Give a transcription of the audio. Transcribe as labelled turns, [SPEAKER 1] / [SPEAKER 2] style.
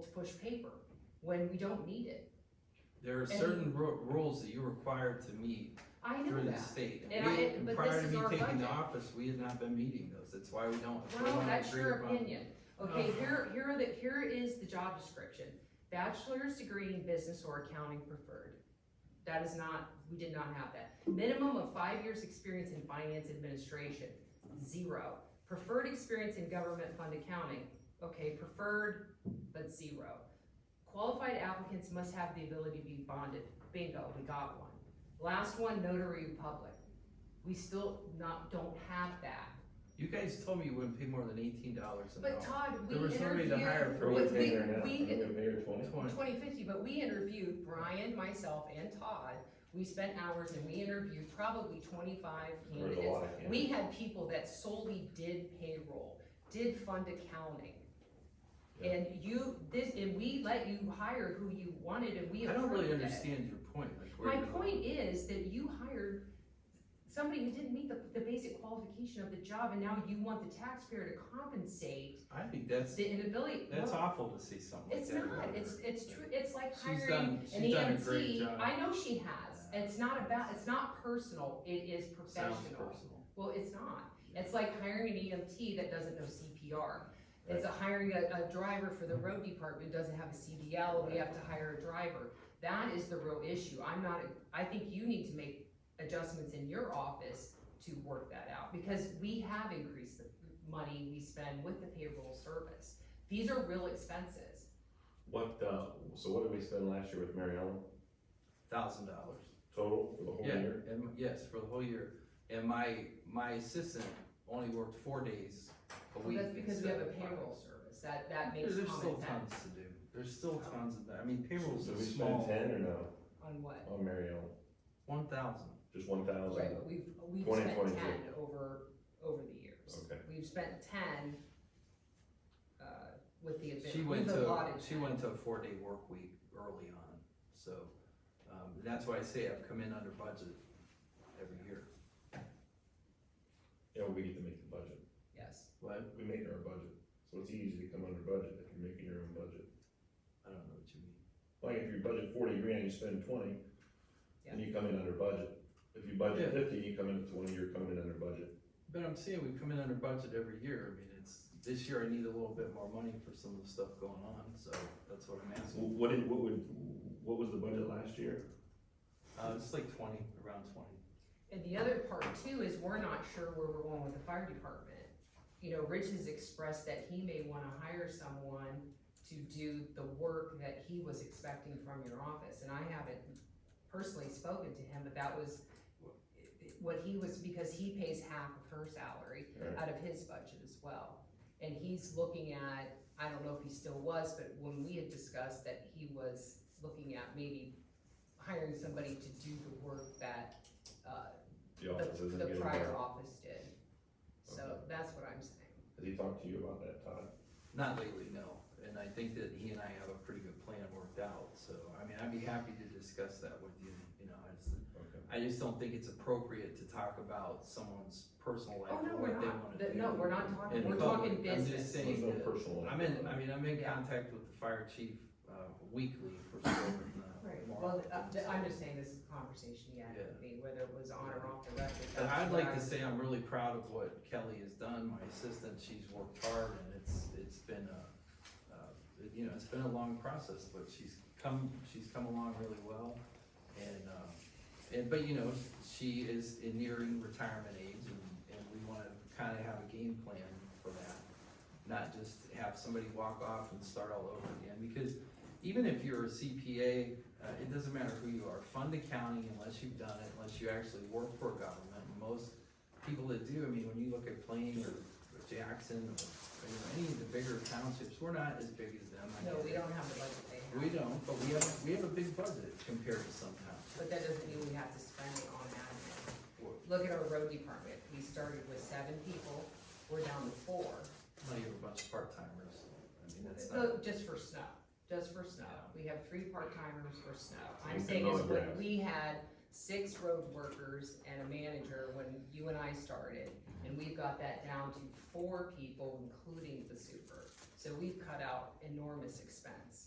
[SPEAKER 1] push paper when we don't need it.
[SPEAKER 2] There are
[SPEAKER 1] And-
[SPEAKER 2] certain ru- rules that you're required to meet
[SPEAKER 1] I know
[SPEAKER 2] through the
[SPEAKER 1] that.
[SPEAKER 2] state.
[SPEAKER 1] And I-
[SPEAKER 2] We-
[SPEAKER 1] but
[SPEAKER 2] Prior
[SPEAKER 1] this
[SPEAKER 2] to
[SPEAKER 1] is
[SPEAKER 2] me
[SPEAKER 1] our
[SPEAKER 2] taking the
[SPEAKER 1] budget.
[SPEAKER 2] office, we had not been meeting those, that's why we don't. if we
[SPEAKER 1] Well,
[SPEAKER 2] wanna
[SPEAKER 1] that's
[SPEAKER 2] agree Uh-huh.
[SPEAKER 1] your
[SPEAKER 2] upon-
[SPEAKER 1] opinion. Okay, here, here are the, here is the job description. Bachelor's degree in business or accounting preferred. That is not, we did not have that. Minimum of five years' experience in finance administration, zero. Preferred experience in government fund accounting, okay, preferred, but zero. Qualified applicants must have the ability to be bonded. Bingo, we got one. Last one, notary public. We still not, don't have that.
[SPEAKER 2] You guys told me you wouldn't pay more than eighteen dollars an
[SPEAKER 1] But
[SPEAKER 2] hour.
[SPEAKER 1] Todd, we
[SPEAKER 2] There was somebody to hire
[SPEAKER 1] interviewed,
[SPEAKER 2] for
[SPEAKER 1] we,
[SPEAKER 2] you
[SPEAKER 1] we,
[SPEAKER 3] Maybe maybe twenty.
[SPEAKER 2] Twenty.
[SPEAKER 1] twenty fifty, but we interviewed Brian, myself, and Todd. We spent hours and we interviewed probably twenty-five
[SPEAKER 3] There was a
[SPEAKER 1] candidates.
[SPEAKER 3] lot of candidates.
[SPEAKER 1] We had people that solely did payroll, did fund accounting.
[SPEAKER 3] Yeah.
[SPEAKER 1] And you, this, and we let you hire who you wanted and we
[SPEAKER 2] I don't really
[SPEAKER 1] approved it.
[SPEAKER 2] understand your point, like where
[SPEAKER 1] My
[SPEAKER 2] you're going.
[SPEAKER 1] point is that you hired somebody who didn't meet the, the basic qualification of the job and now you want the taxpayer to compensate
[SPEAKER 2] I think that's,
[SPEAKER 1] the inability.
[SPEAKER 2] that's
[SPEAKER 1] no,
[SPEAKER 2] awful to see something like
[SPEAKER 1] It's
[SPEAKER 2] that.
[SPEAKER 1] not, it's, it's true, it's like
[SPEAKER 2] She's
[SPEAKER 1] hiring
[SPEAKER 2] done-
[SPEAKER 1] an
[SPEAKER 2] she's done a great
[SPEAKER 1] EMT.
[SPEAKER 2] job.
[SPEAKER 1] I know she has, it's not about, it's not personal, it is
[SPEAKER 2] Sounds
[SPEAKER 1] professional.
[SPEAKER 2] personal.
[SPEAKER 1] Well, it's not, it's like hiring an EMT that doesn't know CPR. It's a hiring a, a driver for the road department, who doesn't have a CDL, and we have to hire a driver. That is the real issue, I'm not, I think you need to make adjustments in your office to work that out, because we have increased the money we spend with the payroll service. These are real expenses.
[SPEAKER 3] What, uh, so what did we spend last year with Mary Ellen
[SPEAKER 2] Thousand dollars.
[SPEAKER 3] total for the whole
[SPEAKER 2] Yeah,
[SPEAKER 3] year?
[SPEAKER 2] and, yes, for the whole year. And my, my assistant only worked four days a
[SPEAKER 1] Well,
[SPEAKER 2] week.
[SPEAKER 1] That's because we
[SPEAKER 2] instead
[SPEAKER 1] have a
[SPEAKER 2] of five.
[SPEAKER 1] payroll service, that, that makes
[SPEAKER 2] There's there's
[SPEAKER 1] common
[SPEAKER 2] still
[SPEAKER 1] sense.
[SPEAKER 2] tons to do. There's still tons of that. I mean, payroll's
[SPEAKER 3] So
[SPEAKER 2] a
[SPEAKER 3] we spent
[SPEAKER 2] small,
[SPEAKER 3] ten or no,
[SPEAKER 1] On what?
[SPEAKER 3] on Mary Ellen,
[SPEAKER 2] one thousand.
[SPEAKER 3] just one thousand?
[SPEAKER 1] Right, but we've, we've
[SPEAKER 3] 20,
[SPEAKER 1] spent
[SPEAKER 3] 22.
[SPEAKER 1] ten over, over the years.
[SPEAKER 3] Okay,
[SPEAKER 1] We've spent ten, uh, with the, advan-
[SPEAKER 2] She went
[SPEAKER 1] we've
[SPEAKER 2] to,
[SPEAKER 1] allotted
[SPEAKER 2] she
[SPEAKER 1] 10.
[SPEAKER 2] went to a four-day work week early on, so, um, that's why I say I've come in under budget every year.
[SPEAKER 3] yeah, we get to make the budget.
[SPEAKER 1] Yes,
[SPEAKER 2] What?
[SPEAKER 3] We made our budget, so it's easy to come under budget if you're making your own budget.
[SPEAKER 2] I don't know what you mean.
[SPEAKER 3] Like if you budget forty grand, you spend twenty, then you come in under budget. If you budget
[SPEAKER 2] Yeah.
[SPEAKER 3] fifty, you come in at twenty, you're coming in under budget.
[SPEAKER 2] But I'm saying we come in under budget every year. I mean, it's, this year I need a little bit more money for some of the stuff going on, so that's what I'm asking.
[SPEAKER 3] Wh- What did, what would, what was the budget last year?
[SPEAKER 2] Uh, it's like twenty, around twenty.
[SPEAKER 1] and the other part too is we're not sure where we're going with the fire department. You know, Rich has expressed that he may wanna hire someone to do the work that he was expecting from your office, and I haven't personally spoken to him, but that was what he was, because he pays half of her salary
[SPEAKER 3] Right.
[SPEAKER 1] out of his budget as well. And he's looking at, I don't know if he still was, but when we had discussed that he was looking at maybe hiring somebody to do the work that, uh,
[SPEAKER 3] The office
[SPEAKER 1] the,
[SPEAKER 3] isn't
[SPEAKER 1] the
[SPEAKER 3] getting
[SPEAKER 1] prior
[SPEAKER 3] better.
[SPEAKER 1] office did. So
[SPEAKER 3] Okay.
[SPEAKER 1] that's what I'm saying.
[SPEAKER 3] Has he talked to you about that, Todd?
[SPEAKER 2] Not lately, no. And I think that he and I have a pretty good plan worked out, so, I mean, I'd be happy to discuss that with you, you know, I just,
[SPEAKER 3] Okay.
[SPEAKER 2] I just don't think it's appropriate to talk about someone's personal life
[SPEAKER 1] Oh, no,
[SPEAKER 2] or
[SPEAKER 1] we're
[SPEAKER 2] what they
[SPEAKER 1] not,
[SPEAKER 2] wanna
[SPEAKER 1] That-
[SPEAKER 2] do.
[SPEAKER 1] no, we're not talking,
[SPEAKER 2] in
[SPEAKER 1] we're
[SPEAKER 2] public.
[SPEAKER 1] talking
[SPEAKER 2] I'm just
[SPEAKER 1] business.
[SPEAKER 2] saying-
[SPEAKER 3] There's no
[SPEAKER 2] that-
[SPEAKER 3] personal.
[SPEAKER 2] I'm in, I mean, I'm in
[SPEAKER 1] Yeah.
[SPEAKER 2] contact with the fire chief, uh, weekly for certain,
[SPEAKER 1] Right,
[SPEAKER 2] uh,
[SPEAKER 1] well,
[SPEAKER 2] more.
[SPEAKER 1] uh, th- I'm just saying this is a conversation he had with me, whether it was on or off the record.
[SPEAKER 2] But
[SPEAKER 1] that's
[SPEAKER 2] I'd
[SPEAKER 1] where
[SPEAKER 2] like
[SPEAKER 1] I
[SPEAKER 2] to
[SPEAKER 1] was-
[SPEAKER 2] say I'm really proud of what Kelly has done, my assistant, she's worked hard and it's, it's been a, uh, you know, it's been a long process, but she's come, she's come along really well. And, um, and, but you know, she is in nearing retirement age and, and we wanna kinda have a game plan for that. Not just have somebody walk off and start all over again, because even if you're a CPA, uh, it doesn't matter who you are, fund accounting unless you've done it, unless you actually work for a government, and most people that do, I mean, when you look at Plain or or Jackson or, you know, any of the bigger townships, we're not as big as them. I
[SPEAKER 1] No,
[SPEAKER 2] get
[SPEAKER 1] we
[SPEAKER 2] it.
[SPEAKER 1] don't have the budget they have.
[SPEAKER 2] We don't, but we have, we have a big budget compared to some towns.
[SPEAKER 1] But that doesn't mean we have to spend it on admin. Look at our road department, we started with seven people, we're down to four.
[SPEAKER 2] Not even a bunch of part-timers, I mean, that's not,
[SPEAKER 1] So, just for snow, just for snow, we have three part-timers for snow. I'm
[SPEAKER 3] We
[SPEAKER 1] saying
[SPEAKER 3] can
[SPEAKER 1] is
[SPEAKER 3] mow the
[SPEAKER 1] when
[SPEAKER 3] grass.
[SPEAKER 1] we had six road workers and a manager when you and I started, and we've got that down to four people, including the super. So we've cut out enormous expense.